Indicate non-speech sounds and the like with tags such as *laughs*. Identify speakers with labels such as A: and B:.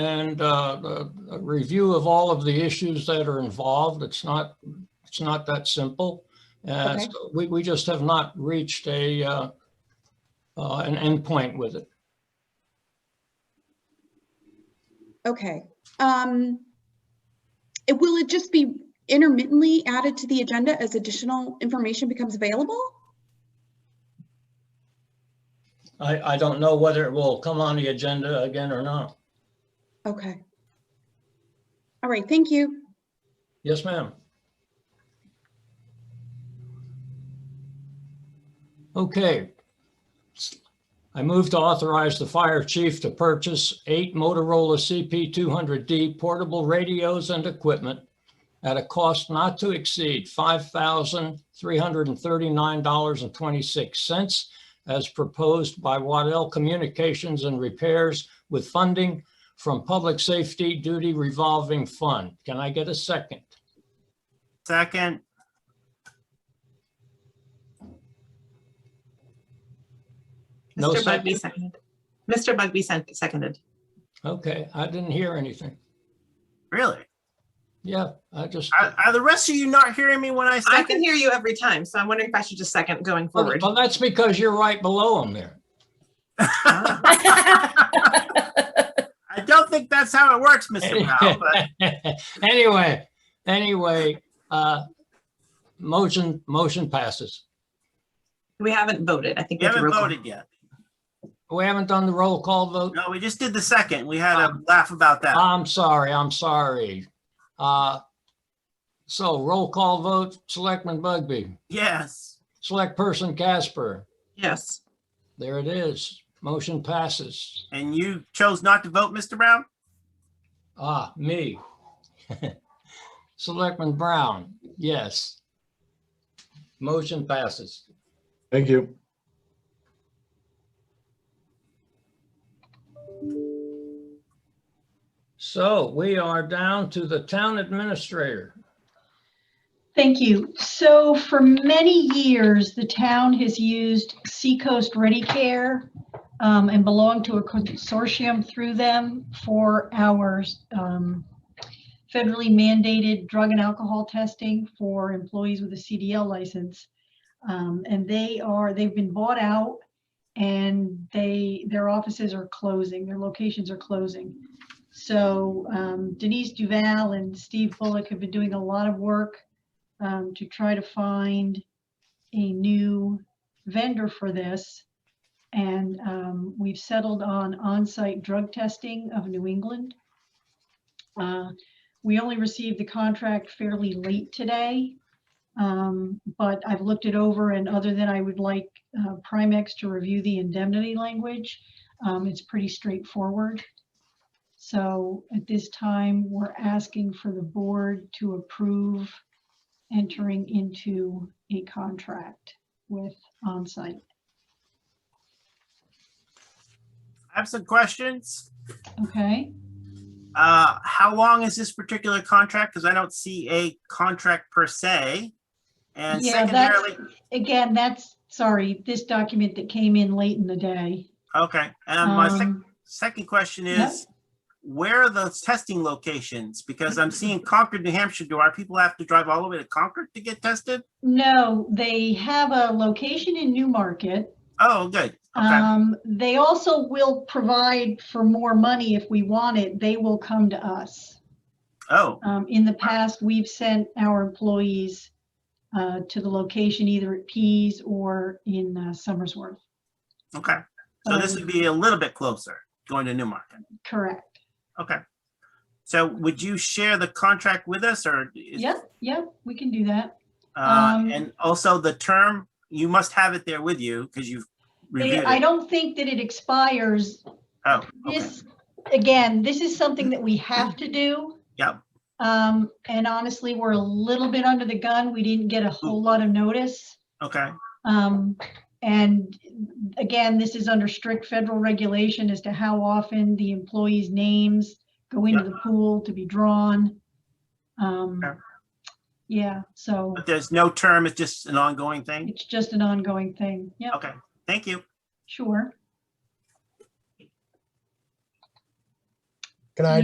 A: and uh, a a review of all of the issues that are involved. It's not, it's not that simple. Uh,
B: Okay.
A: so We, we just have not reached a, uh, uh, an endpoint with it.
B: Okay. Um, it, will it just be intermittently added to the agenda as additional information becomes available?
A: I, I don't know whether it will come on the agenda again or not.
B: Okay. All right, thank you.
A: Yes, ma'am. Okay. I move to authorize the fire chief to purchase eight Motorola CP200D portable radios and equipment at a cost not to exceed $5,339.26 as proposed by Waddell Communications and Repairs with funding from Public Safety Duty Revolving Fund. Can I get a second?
C: Second,
A: No
D: Mr.
A: second.
D: Bugby seconded. Mr. Bugby sent- seconded.
A: Okay, I didn't hear anything.
C: really?
A: Yeah, I just,
C: Are, are the rest of you not hearing me when I
D: I can
C: second?
D: hear you every time, so I'm wondering if I should just second going forward.
A: well, that's because you're right below him there.
C: *laughs* I don't think that's how it works,
A: *laughs*
C: Mr. Powell, but
A: Anyway, anyway, uh, motion, motion passes.
D: We haven't voted. I think
C: we
D: we have to
C: haven't
D: roll call.
C: voted yet.
A: We haven't done the roll call vote.
C: No, we just did the second. We had a laugh about that.
A: I'm sorry, I'm sorry. Uh, so roll call vote, Selectman Bugby,
C: Yes.
A: Select Person Casper.
D: Yes.
A: There it is. Motion passes.
C: And you chose not to vote, Mr. Brown?
A: Ah, me. Selectman Brown, yes. Motion passes.
E: Thank you.
A: So we are down to the town administrator.
F: Thank you. So for many years, the town has used Seacoast Ready Care um, and belonged to a consortium through them for our um, federally mandated drug and alcohol testing for employees with a CDL license. Um, And they are, they've been bought out and they, their offices are closing, their locations are closing. So um, Denise Duval and Steve Bullock have been doing a lot of work um, to try to find a new vendor for this. And um, we've settled on on-site drug testing of New England. Uh, We only received the contract fairly late today. um, But I've looked it over and other than I would like uh, Primex to review the indemnity language, um, it's pretty straightforward. So at this time, we're asking for the board to approve entering into a contract with onsite.
C: Absent questions?
F: Okay,
C: Uh, how long is this particular contract? Because I don't see a contract per se. And
F: Yeah, that's-
C: secondarily,
F: again, that's, sorry, this document that came in late in the day.
C: okay, and my second
F: Um,
C: Second question
F: Yeah.
C: is, where are those testing locations? Because I'm seeing Concord, New Hampshire. Do our people have to drive all the way to Concord to get tested?
F: No, they have a location in Newmarket.
C: Oh, good. Okay,
F: Um, they also will provide for more money if we want it. They will come to us.
C: oh,
F: Um, in the past, we've sent our employees uh, to the location either at Pease or in uh, Somersworth.
C: okay. So
F: uh,
C: this would be a little bit closer, going to Newmarket.
F: Um, Correct.
C: Okay. So would you share the contract with us or? is-
F: Yep, yep, we can do that.
C: Uh,
F: um,
C: and also the term, you must have it there with you because you've reviewed
F: It- I
C: it.
F: don't think that it expires.
C: Oh, okay.
F: This, again, this is something that we have to do.
C: Yep.
F: Um, and honestly, we're a little bit under the gun. We didn't get a whole lot of notice.
C: Okay,
F: Um, and again, this is under strict federal regulation as to how often the employees' names go into the pool to be drawn. Um,
C: Sure.
F: yeah, so
C: but there's no term, it's just an ongoing thing?
F: it's just an ongoing thing. Yeah,
C: Okay, thank you.
F: sure. Can I